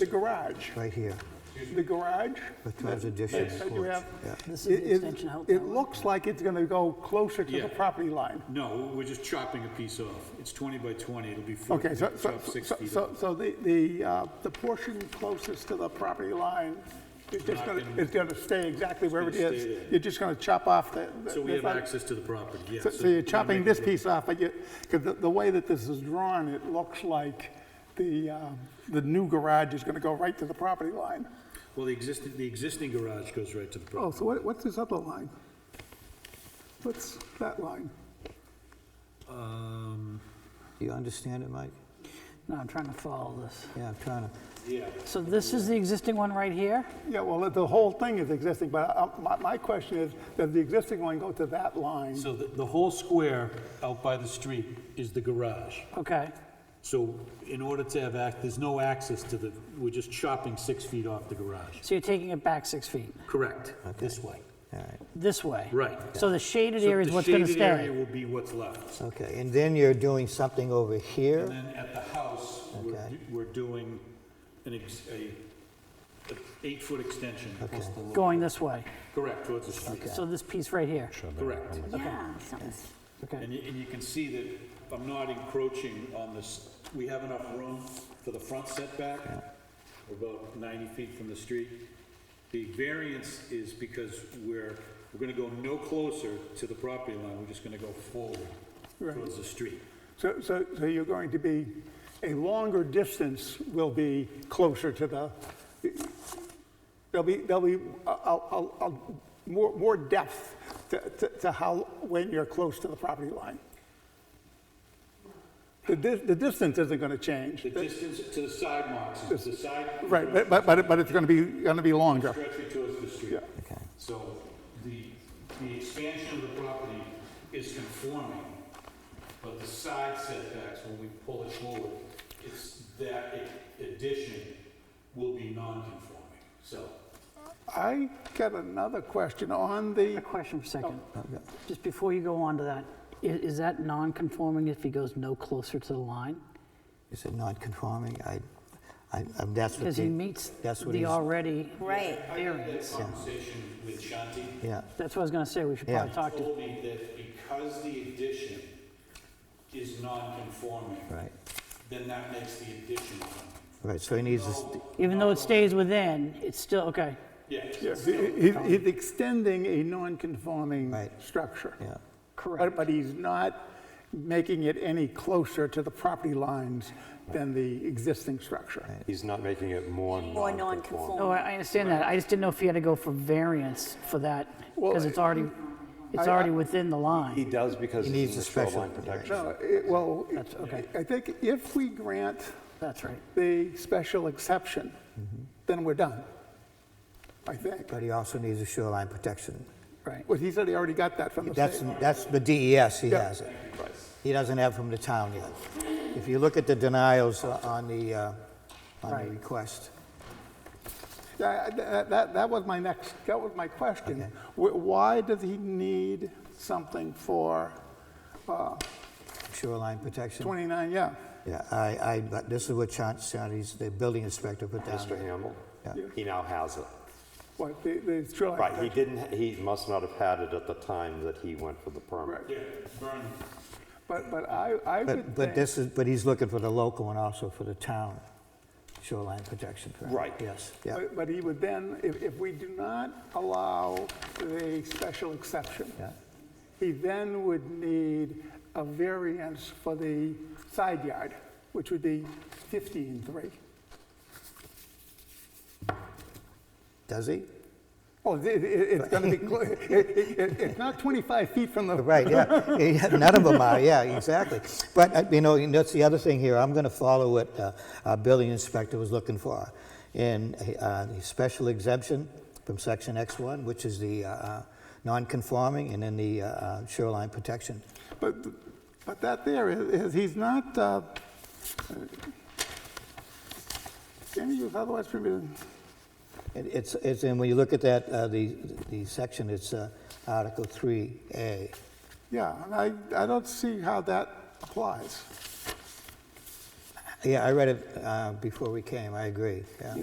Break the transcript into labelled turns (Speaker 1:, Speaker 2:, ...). Speaker 1: The garage,
Speaker 2: right here,
Speaker 1: the garage
Speaker 2: with those additions.
Speaker 1: that you have.
Speaker 2: Yeah.
Speaker 3: This
Speaker 1: it-
Speaker 3: is the
Speaker 1: it-
Speaker 3: extension out that
Speaker 1: It
Speaker 3: way.
Speaker 1: looks like it's going to go closer to the
Speaker 4: Yeah.
Speaker 1: property line.
Speaker 4: No, we're just chopping a piece off. It's 20 by 20, it'll be 40,
Speaker 1: Okay, so,
Speaker 4: chop
Speaker 1: so,
Speaker 4: six
Speaker 1: so-
Speaker 4: feet
Speaker 1: so,
Speaker 4: off.
Speaker 1: so the, the, uh, the portion closest to the property line, it's just
Speaker 4: Not
Speaker 1: gonna,
Speaker 4: gonna-
Speaker 1: it's gonna stay exactly where it
Speaker 4: gonna stay
Speaker 1: is.
Speaker 4: there.
Speaker 1: You're just gonna chop off the. the-
Speaker 4: So we
Speaker 1: this
Speaker 4: have
Speaker 1: other-
Speaker 4: access to the property, yes.
Speaker 1: So so you're chopping this piece off, but you, because the, the way that this is drawn, it looks like the, um, the new garage is gonna go right to the property line.
Speaker 4: Well, the existing, the existing garage goes right to the
Speaker 1: Oh,
Speaker 4: property.
Speaker 1: so what, what's this other line? What's that line?
Speaker 4: Um,
Speaker 2: Do you understand it, Mike?
Speaker 3: No, I'm trying to follow this.
Speaker 2: Yeah, I'm trying to,
Speaker 3: So this is the existing one right here?
Speaker 1: Yeah, well, the whole thing is existing, but uh, my, my question is, does the existing line go to that line?
Speaker 4: So the, the whole square out by the street is the garage.
Speaker 3: Okay,
Speaker 4: So in order to have act, there's no access to the, we're just chopping six feet off the garage.
Speaker 3: so you're taking it back six feet,
Speaker 4: Correct, this way.
Speaker 2: all right,
Speaker 3: this way?
Speaker 4: Right.
Speaker 3: So the shaded
Speaker 4: So
Speaker 3: area is
Speaker 4: the
Speaker 3: what's gonna
Speaker 4: shaded area
Speaker 3: stay?
Speaker 4: will be what's left.
Speaker 2: okay, and then you're doing something over here?
Speaker 4: And then at the house, we're,
Speaker 2: Okay.
Speaker 4: we're doing an ex, a, a eight-foot extension. plus the lower-
Speaker 3: Going this way?
Speaker 4: Correct, towards the street,
Speaker 3: So this piece right here?
Speaker 4: correct.
Speaker 5: Yeah, something's,
Speaker 3: Okay,
Speaker 4: And you, and you can see that I'm not encroaching on this, we have enough room for the front setback, We're about 90 feet from the street. The variance is because we're, we're gonna go no closer to the property line, we're just gonna go forward towards the street.
Speaker 1: So, so, so you're going to be, a longer distance will be closer to the, there'll be, there'll be a, a, a- a more, more depth to, to, to how, when you're close to the property line. The, dis- the distance isn't gonna change,
Speaker 4: The distance to the sidewalks is the side.
Speaker 1: right, but- but, but, it- but it's gonna be, gonna be longer.
Speaker 4: Stretching towards the street.
Speaker 1: Yeah.
Speaker 2: Okay.
Speaker 4: So the, the expansion of the property is conforming, but the side setbacks, when we pull it forward, it's that a- addition will be non-conforming, so.
Speaker 1: I got another question on the,
Speaker 3: a question for a second.
Speaker 2: Oh,
Speaker 3: Just before you go on to that, i- is that non-conforming if he goes no closer to the line?
Speaker 2: Is it non-conforming? I, I, I- that's what
Speaker 3: Because he
Speaker 2: the-
Speaker 3: meets
Speaker 2: that's what
Speaker 3: the
Speaker 2: he's-
Speaker 3: already,
Speaker 5: right.
Speaker 4: I had that conversation with Shanti.
Speaker 2: Yeah,
Speaker 3: that's what I was gonna say, we should probably
Speaker 2: Yeah.
Speaker 3: talk to
Speaker 4: Told me that because the addition is non-conforming,
Speaker 2: right,
Speaker 4: then that makes the addition non-conforming.
Speaker 2: right, so he needs this,
Speaker 3: Even though it stays within, it's still, okay,
Speaker 4: Yeah,
Speaker 1: yeah, he- he- he's extending a non-conforming
Speaker 2: Right.
Speaker 1: structure.
Speaker 2: yeah,
Speaker 1: But,
Speaker 3: correct.
Speaker 1: but he's not making it any closer to the property lines than the existing structure.
Speaker 6: He's not making it more
Speaker 5: More
Speaker 6: non-conforming.
Speaker 5: non-conforming.
Speaker 3: No, Oh, I I understand that, I just didn't know if he had to go for variance for that,
Speaker 1: Well,
Speaker 3: because it's already, it's
Speaker 1: I- I-
Speaker 3: already within the
Speaker 6: He
Speaker 3: line.
Speaker 6: does because
Speaker 2: He
Speaker 6: it's
Speaker 2: needs
Speaker 6: in
Speaker 2: a
Speaker 6: the
Speaker 2: special-
Speaker 6: shoreline
Speaker 2: yeah.
Speaker 6: protection.
Speaker 1: No, it- well,
Speaker 3: That's- okay.
Speaker 1: I think if we grant
Speaker 3: That's right.
Speaker 1: the special exception, then we're done, I think.
Speaker 2: Mm-hmm. but he also needs a shoreline protection.
Speaker 3: Right.
Speaker 1: Well, he said he already got that from the
Speaker 2: That's,
Speaker 1: state.
Speaker 2: that's the DES, he
Speaker 1: Oh, Yeah.
Speaker 2: has it. He doesn't have from the town yet. If you look at the denials o- on the, uh, on
Speaker 3: Right.
Speaker 2: the request,
Speaker 1: That, that- that, that was my next, that was my question.
Speaker 2: Okay.
Speaker 1: Wh- Why does he need something for
Speaker 2: shoreline protection.
Speaker 1: 29, yeah?
Speaker 2: Yeah, I, I, but this is what Chan, Chan's, the building inspector put down.
Speaker 6: Mr. Hamel,
Speaker 2: Yeah.
Speaker 6: he now has it.
Speaker 1: What, the, the shoreline
Speaker 6: Right, he
Speaker 1: protection?
Speaker 6: didn't, he must not have had it at the time that he went for the permit.
Speaker 1: Right.
Speaker 4: yeah, burn.
Speaker 1: But, but I, I would
Speaker 2: But,
Speaker 1: think.
Speaker 2: but this is, but he's looking for the local and also for the town shoreline protection. permit.
Speaker 6: Right.
Speaker 2: Yes, yeah,
Speaker 1: But- But he would then, if, if we do not allow the special exception,
Speaker 2: yeah,
Speaker 1: he then would need a variance for the side yard, which would be 15.3.
Speaker 2: does he?
Speaker 1: Oh, it- it- it's going to be, clo- it- it- it- it's not 25 feet from the,
Speaker 2: Right, yeah, Yeah, none of them are, yeah, exactly. But, uh, you know, and that's the other thing here, I'm gonna follow what uh, our building inspector was looking for. In uh, the special exemption from section X1, which is the uh, uh, non-conforming, and then the uh, uh, shoreline protection.
Speaker 1: but, but that there is, is- he's not, uh, any use otherwise permitted.
Speaker 2: It- It's, it's, and when you look at that, uh, the, the section, it's uh, Article 3A.
Speaker 1: Yeah, and I, I don't see how that applies.
Speaker 2: Yeah, I read it uh, before we came, I agree, yeah.